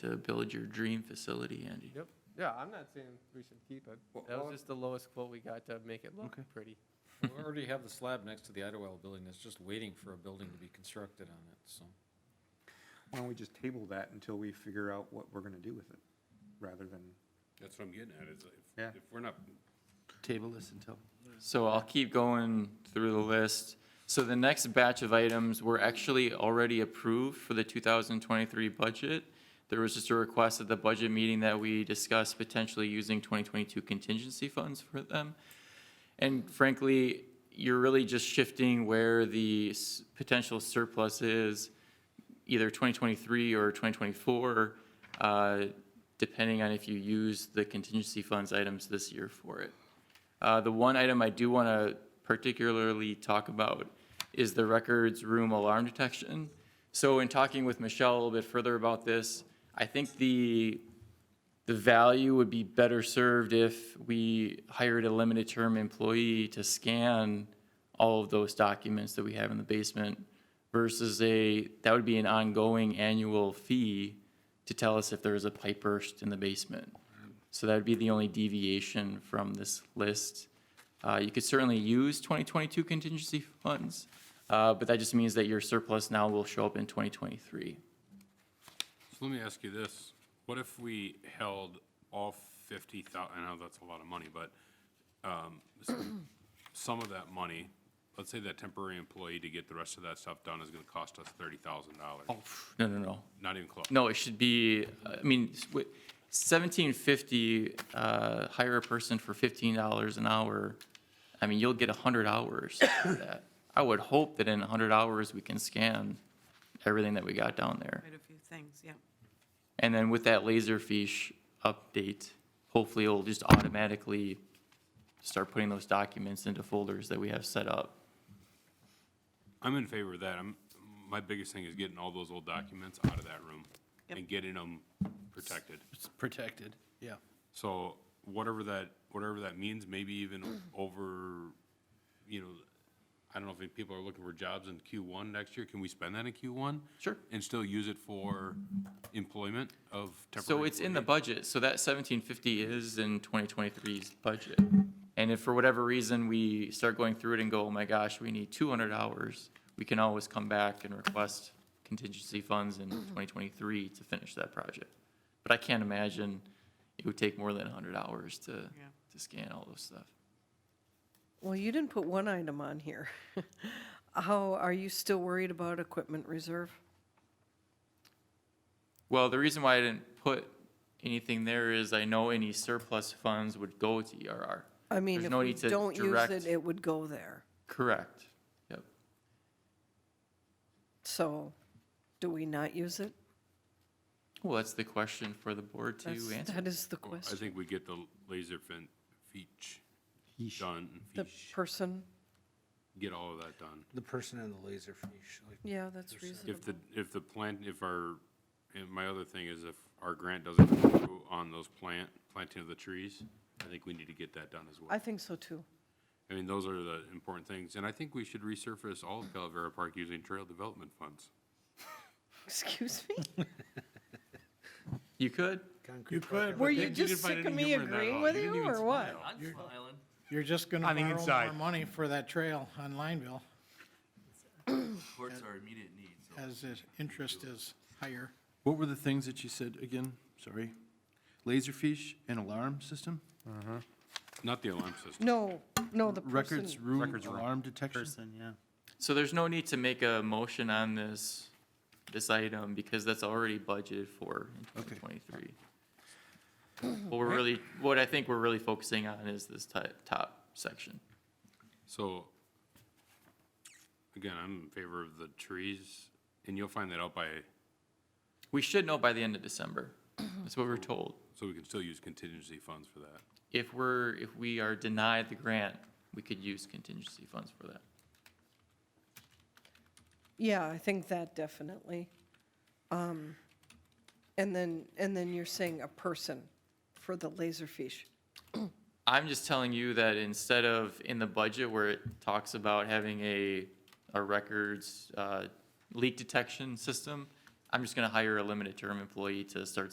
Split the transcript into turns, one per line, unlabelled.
to build your dream facility, Andy.
Yep, yeah, I'm not saying we should keep it.
Well,
That
well-
was just the lowest quote we got to make it look pretty.
We already have the slab next to the Idlewild building that's just waiting for a building to be constructed on it, so.
Why don't we just table that until we figure out what we're gonna do with it, rather than,
That's what I'm getting at, is
Yeah.
if, if we're not,
Table this until. So I'll keep going through the list. So the next batch of items were actually already approved for the 2023 budget. There was just a request at the budget meeting that we discuss potentially using 2022 contingency funds for them. And frankly, you're really just shifting where the s- potential surplus is, either 2023 or 2024, uh, depending on if you use the contingency funds items this year for it. Uh, The one item I do want to particularly talk about is the records room alarm detection. So in talking with Michelle a little bit further about this, I think the the value would be better served if we hired a limited term employee to scan all of those documents that we have in the basement versus a, that would be an ongoing annual fee to tell us if there is a pipe burst in the basement. So that'd be the only deviation from this list. Uh, you could certainly use 2022 contingency funds, uh, but that just means that your surplus now will show up in 2023.
so let me ask you this. What if we held all fifty thousand? I know that's a lot of money, but, um, s- some of that money, let's say that temporary employee to get the rest of that stuff done is gonna cost us thirty thousand dollars.
No, no, no.
Not even close.
No, it should be, uh, I mean, s- wi- 1750, uh, hire a person for $15 an hour. I mean, you'll get 100 hours for that. I would hope that in 100 hours, we can scan everything that we got down there.
Quite a few things, yeah.
And then with that Laserfish update, hopefully it'll just automatically start putting those documents into folders that we have set up.
I'm in favor of that. I'm, my biggest thing is getting all those old documents out of that room
Yep.
and getting them protected.
It's protected, yeah.
So whatever that, whatever that means, maybe even over, you know, I don't know if people are looking for jobs in Q1 next year, can we spend that in Q1?
Sure.
And still use it for employment of temporary?
So it's in the
employee?
budget, so that seventeen fifty is in 2023's budget. And if for whatever reason we start going through it and go, oh my gosh, we need two hundred hours, we can always come back and request contingency funds in twenty twenty-three to finish that project. But I can't imagine it would take more than hundred hours to, to scan all those stuff.
Well, you didn't put one item on here. How, are you still worried about equipment reserve?
Well, the reason why I didn't put anything there is I know any surplus funds would go to E ERR.
I mean,
There's
if
no
we
need to
don't use
direct-
it, it would go there.
Correct. Yep.
So, do we not use it?
Well, that's the question for the board to
That's-
answer.
That is the
Well, I
question.
think we get the laser fin, feech, done,
The
feech,
person,
get all of that done.
The person in the laser fiche, like,
yeah, that's reasonable.
If the, if the plant, if our, and my other thing is if our grant doesn't go through on those plant, planting of the trees, I think we need to get that done as well.
I think so too.
I mean, those are the important things, and I think we should resurface all of Calavera Park using trail development funds.
Excuse me?
You could.
You could.
Were you just sick of me agreeing with you or what?
You're just gonna
On the
borrow more
inside.
money for that trail on Lineville,
Courts are immediate needs.
as the interest is higher.
What were the things that you said again? Sorry. Laserfish and alarm system?
Not the alarm system.
No, no, the person,
Records room
Records room.
alarm detection?
Person, yeah.
So there's no need to make a motion on this, this item because that's already budgeted for in
Okay.
2023. What we're really, what I think we're really focusing on is this ti- top section.
So, again, I'm in favor of the trees, and you'll find that out by,
We should know by the end of December. That's what we're told.
so we can still use contingency funds for that.
If we're, if we are denied the grant, we could use contingency funds for that.
yeah, I think that definitely. Um, And then, and then you're saying a person for the laserfish.
I'm just telling you that instead of in the budget where it talks about having a, a records, uh, leak detection system, I'm just gonna hire a limited term employee to start